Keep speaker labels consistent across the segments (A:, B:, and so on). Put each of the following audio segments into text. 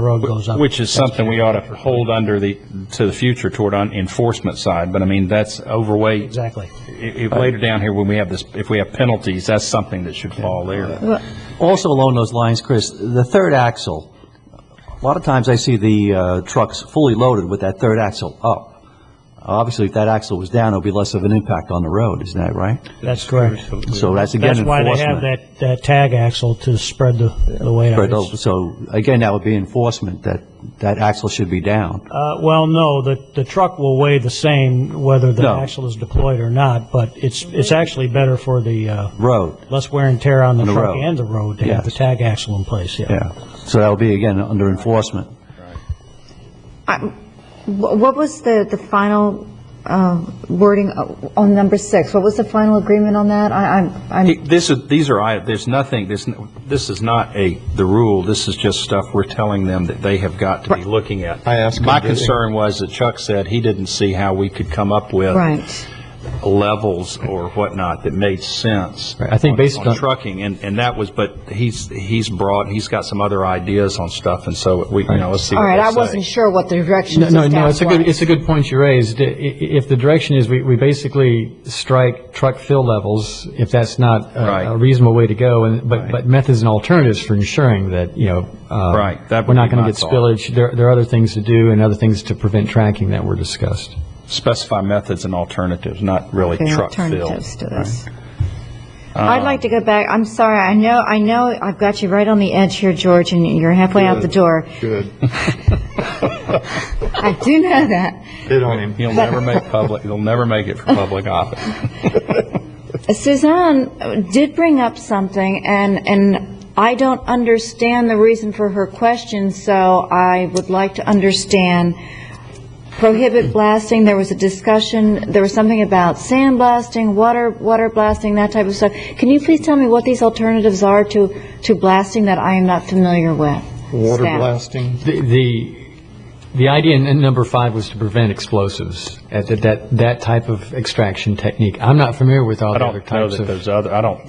A: road goes up.
B: Which is something we ought to hold under the, to the future toward on enforcement side, but I mean, that's overweight.
A: Exactly.
B: I- If later down here, when we have this, if we have penalties, that's something that should fall there.
C: Also along those lines, Chris, the third axle, a lot of times I see the uh, trucks fully loaded with that third axle up. Obviously, if that axle was down, it would be less of an impact on the road, isn't that right?
A: That's correct.
C: So that's again
A: That's why
C: enforcement.
A: they have that, that tag axle to spread the, the weight out.
C: But, oh, So, again, that would be enforcement, that, that axle should be down.
A: Uh, well, no, the, the truck will weigh the same whether the
C: No.
A: axle is deployed or not, but it's, it's actually better for the, uh,
C: Road,
A: less wear and tear on the
C: the
A: truck
C: road.
A: and the road to have the
C: Yes.
A: tag axle in place, yeah.
C: yeah. So that would be, again, under enforcement.
D: I'm- wh- What was the, the final uh, wording o- on number six? What was the final agreement on that? I, I'm,
B: He-
D: I'm,
B: This is, these are, i- there's nothing, this, n- this is not a, the rule, this is just stuff we're telling them that they have got to be looking at.
E: I asked him
B: My
E: to-
B: concern was that Chuck said he didn't see how we could come up with
D: right.
B: levels or whatnot that made sense.
F: Right, I think based on-
B: trucking, and, and that was, but he's, he's brought, he's got some other ideas on stuff, and so we, you know, let's see
D: All
B: what
D: right,
B: they
D: I
B: say.
D: wasn't sure what the direction
F: No,
D: of
F: no,
D: staff
F: no, it's a good,
D: was.
F: it's a good point you raised. I- i- If the direction is, we, we basically strike truck fill levels, if that's not
B: Right.
F: a- a reasonable way to go, and, but, but methods and alternatives for ensuring that, you know, uh,
B: Right, that
F: We're
B: would
F: not
B: be
F: going
B: my
F: to get
B: thought.
F: spillage. There, there are other things to do and other things to prevent tracking that were discussed.
B: Specify methods and alternatives, not really
D: There are
B: truck fill.
D: alternatives to this.
F: Uh,
D: I'd like to go back, I'm sorry, I know, I know, I've got you right on the edge here, George, and you're halfway out the door.
E: Good.
D: I do know that.
E: Hit on him.
B: He'll never make public, he'll never make it for public office.
D: Suzanne uh, did bring up something, and, and I don't understand the reason for her question, so I would like to understand. Prohibit blasting, there was a discussion, there was something about sand blasting, water, water blasting, that type of stuff. Can you please tell me what these alternatives are to, to blasting that I am not familiar with?
E: Water
D: Staff.
E: blasting.
F: The- The, the idea in in number five was to prevent explosives, at that- that, that type of extraction technique. I'm not familiar with all
B: I
F: the other
B: don't know
F: types
B: that
F: of.
B: there's other, I don't,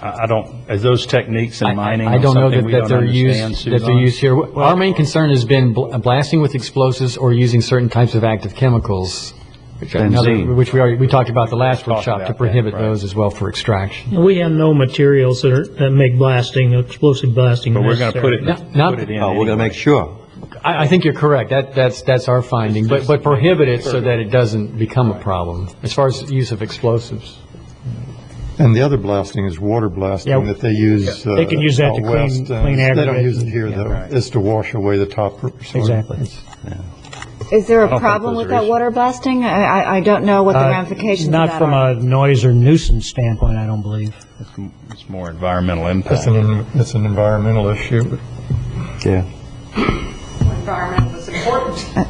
B: I I don't, is those techniques
F: I- I-
B: in mining
F: I
B: or
F: don't know
B: something
F: that,
B: we
F: that
B: don't
F: they're
B: understand,
F: used, that they're
B: Suzanne?
F: used here. Well, Our main concern has been bl- blasting with explosives or using certain types of active chemicals. Which I- another-
C: Benzene.
F: Which we already, we talked about the last
B: Talked
F: workshop,
B: about
F: to
B: that,
F: prohibit
B: right.
F: those as well for extraction.
G: We have no materials that are, that make blasting, explosive blasting
B: But we're
G: necessary.
B: going to put it,
F: Not- not-
B: put it in.
C: Oh, we're going to
B: anyway.
C: make sure.
F: I, I think you're correct. That, that's, that's our finding, but, but prohibit it so that it doesn't become a problem, as far as use of explosives.
E: And the other blasting is water blasting
G: Yeah.
E: that they use.
G: They can use that
E: uh,
G: to
E: out
G: clean-
E: west, uh,
G: clean
E: They don't
G: aggregate
E: use it
G: and-
E: here, though. It's to wash away the top soil.
G: Exactly.
D: Is there
B: don't
D: a
B: think
D: problem
B: those
D: with
B: are
D: that
B: issues.
D: water blasting? I, I- I don't know what the
A: Uh,
D: ramifications of
A: Not
D: that
A: from
D: are.
A: a noise or nuisance standpoint, I don't believe.
B: It's m- It's more environmental impact.
E: It's an, it's an environmental issue.
C: Yeah.
H: environment was important.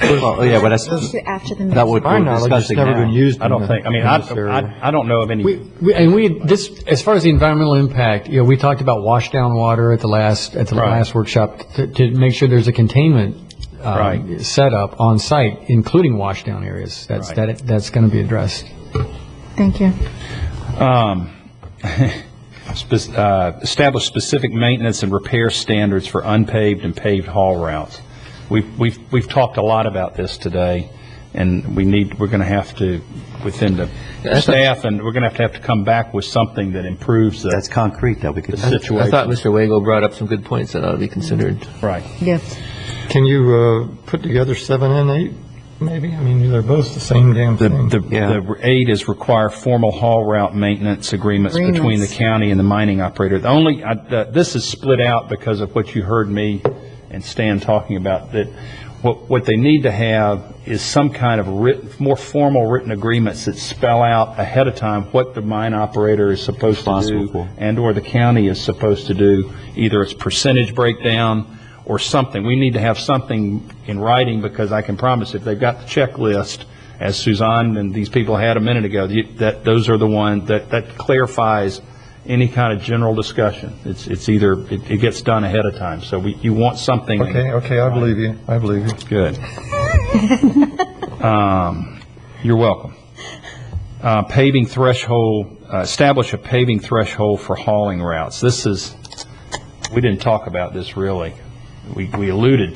C: Well, yeah, but that's,
D: After the
C: that
D: meeting.
C: would,
E: My
C: we're
E: knowledge, it's
C: discussing
E: never
C: now.
E: been used
B: I don't
E: in the-
B: think, I mean,
E: in
B: I,
E: this area.
B: I I don't know of any.
F: We, we- and we, this, as far as the environmental impact, you know, we talked about wash down water at the last, at the
B: Right.
F: last workshop, to, to make sure there's a containment um,
B: Right.
F: setup on site, including wash down areas. That's,
B: Right.
F: that, that's going to be addressed.
D: Thank you.
B: Um, spec- uh, Establish specific maintenance and repair standards for unpaved and paved haul routes. We've, we've, we've talked a lot about this today, and we need, we're going to have to, within the staff, and we're going to have to have to come back with something that improves
C: That's
B: the
C: concrete that we could.
B: uh, the
I: I thought Mr.
B: situation.
I: Wago brought up some good points that ought to be considered.
B: Right.
D: Yes.
E: Can you uh, put together seven and eight, maybe? I mean, they're both the same damn
B: The,
E: thing.
B: the-
C: Yeah.
B: the eight is require formal haul route maintenance agreements between the
D: Agreements.
B: county and the mining operator. The only, I- the- this is split out because of what you heard me and Stan talking about, that what, what they need to have is some kind of written, more formal written agreements that spell out ahead of time what the mine operator is supposed to
C: Responsible
B: do
C: for.
B: and/or the county is supposed to do, either it's percentage breakdown or something. We need to have something in writing, because I can promise if they've got the checklist, as Suzanne and these people had a minute ago, you- that, those are the ones, that, that clarifies any kind of general discussion. It's, it's either, it, it gets done ahead of time, so we, you want something. in-
E: Okay, okay, I believe you. I believe you.
B: Good. Um, You're welcome. Uh, Paving threshold, uh, establish a paving threshold for hauling routes. This is, we didn't talk about this really we we alluded